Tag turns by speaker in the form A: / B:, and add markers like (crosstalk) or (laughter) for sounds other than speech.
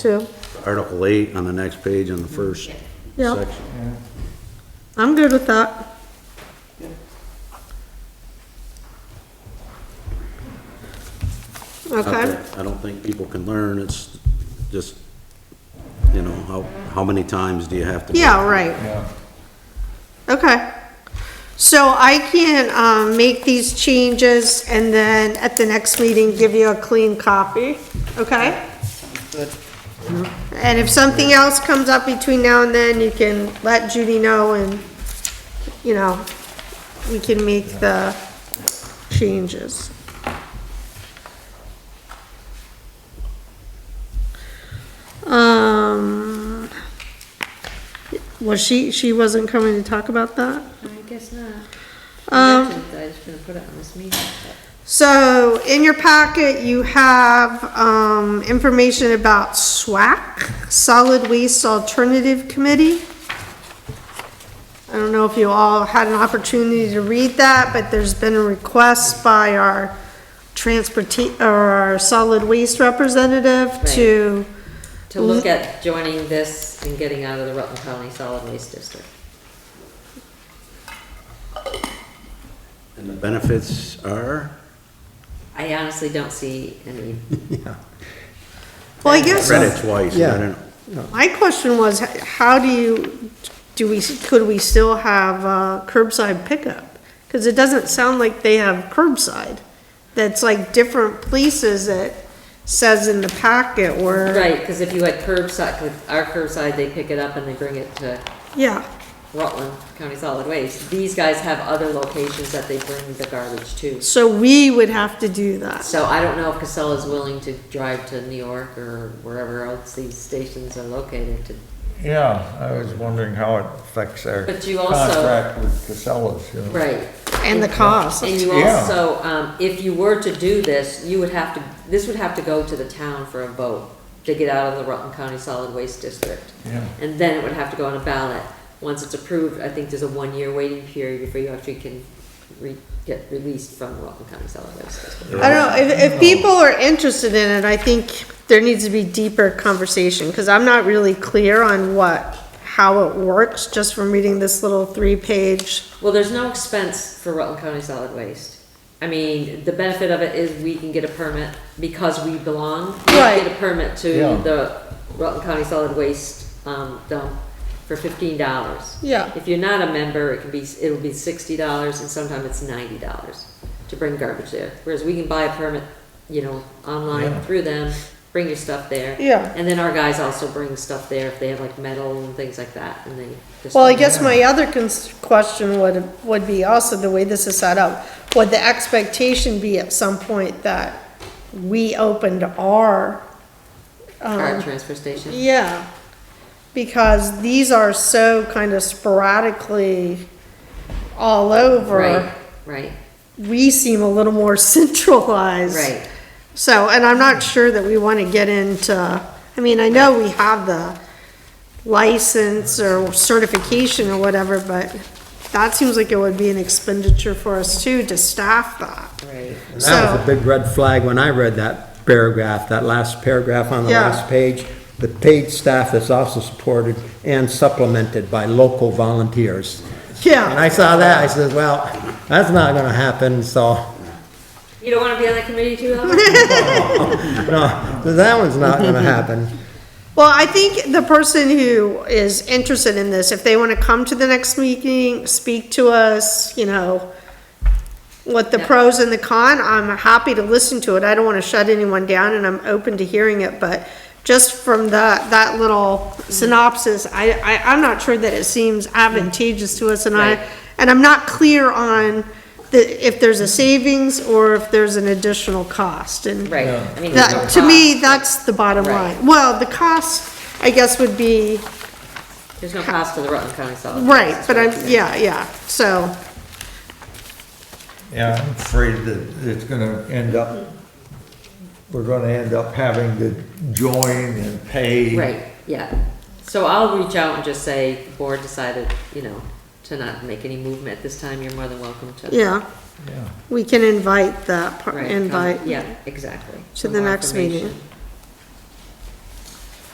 A: too.
B: Article eight on the next page on the first
A: Yeah,
B: section.
A: I'm good with that.
B: 아,
A: Okay,
B: I don't think people can learn, it's just, you know, how, how many times do you have to? do it?
A: yeah, right. Okay. So I can, um, make these changes and then at the next meeting, give you a clean copy, okay? And if something else comes up between now and then, you can let Judy know and, you know, we can make the changes. Um, was she, she wasn't coming to talk about that?
C: I guess not.
A: Um,
C: Mentioned that I was gonna put it on this meeting.
A: So in your packet, you have, um, information about SWAC, Solid Waste Alternative Committee. I don't know if you all had an opportunity to read that, but there's been a request by our transporta, or our solid waste representative to,
C: To look at joining this and getting out of the Rutland County Solid Waste District.
B: And the benefits are?
C: I honestly don't see any,
A: well, I guess.
B: Read it twice, I don't know.
A: My question was, how do you, do we, could we still have uh, curbside pickup? Because it doesn't sound like they have curbside. That's like different places that says in the packet where,
C: right, because if you had curbside, with our curbside, they pick it up and they bring it to
A: yeah,
C: Rutland County Solid Waste. These guys have other locations that they bring the garbage to.
A: so we would have to do that.
C: So I don't know if Casella's willing to drive to New York or wherever else these stations are located to,
D: Yeah, I was wondering how it affects our
C: But you also-
D: contract with Casellas, you know.
C: right.
A: And the cost.
C: And you
D: Yeah.
C: also, um, if you were to do this, you would have to, this would have to go to the town for a vote to get out of the Rutland County Solid Waste District.
D: Yeah.
C: And then it would have to go on a ballot. Once it's approved, I think there's a one-year waiting period before you actually can re, get released from the Rutland County Solid Waste District.
A: I don't know, if, if people are interested in it, I think there needs to be deeper conversation, because I'm not really clear on what, how it works, just from reading this little three-page.
C: Well, there's no expense for Rutland County Solid Waste. I mean, the benefit of it is we can get a permit because we belong. We can Get a
A: Right.
C: permit to
D: Yeah.
C: the Rutland County Solid Waste, um, dump for fifteen dollars.
A: Yeah.
C: If you're not a member, it can be, it'll be sixty dollars and sometimes it's ninety dollars to bring garbage there. Whereas we can buy a permit, you know, online
D: Yeah.
C: through them, bring your stuff there.
A: Yeah.
C: And then our guys also bring stuff there if they have like metal and things like that and they just.
A: Well, I guess my other cons- question would, would be also the way this is set up, would the expectation be at some point that we opened our,
C: Our
A: um,
C: transfer station.
A: yeah, because these are so kind of sporadically all
C: Right,
A: over,
C: right,
A: we seem a little more (laughs) centralized.
C: right.
A: So, and I'm not sure that we want to get into, I mean, I know we have the license or certification or whatever, but that seems like it would be an expenditure for us too, to staff that.
C: Right.
E: And That was
A: So-
E: a big red flag when I read that paragraph, that last paragraph on the
A: Yeah.
E: last page. The paid staff is also supported and supplemented by local volunteers. And
A: Yeah,
E: I saw that, I said, well, that's not gonna happen, so,
C: You don't want to be on that committee too
A: (laughs)
C: long?
E: no, that one's not gonna happen.
A: well, I think the person who is interested in this, if they want to come to the next meeting, speak to us, you know, what the
C: Yeah.
A: pros and the con, I'm happy to listen to it, I don't want to shut anyone down and I'm open to hearing it, but just from that, that little
C: Mm.
A: synopsis, I, I, I'm not sure that it seems advantageous to us and
C: Right.
A: I, and I'm not clear on the, if there's a savings or if there's an additional cost and.
C: Right. I mean, there's no
A: That, to me,
C: cost.
A: that's the bottom
C: Right.
A: line. Well, the cost, I guess, would be,
C: There's no cost to the Rutland County Solid.
A: right,
C: Waste,
A: but I'm,
C: right.
A: yeah, yeah, so,
D: Yeah, I'm afraid that it's gonna end up, we're gonna end up having to join and pay.
C: Right, yeah. So I'll reach out and just say, the board decided, you know, to not make any movement at this time. You're more than welcome to.
A: yeah.
D: Yeah.
A: We can invite that, par-
C: Right, come-
A: invite.
C: Yeah, exactly.
A: to
C: For
A: the
C: more
A: next meeting.
C: information.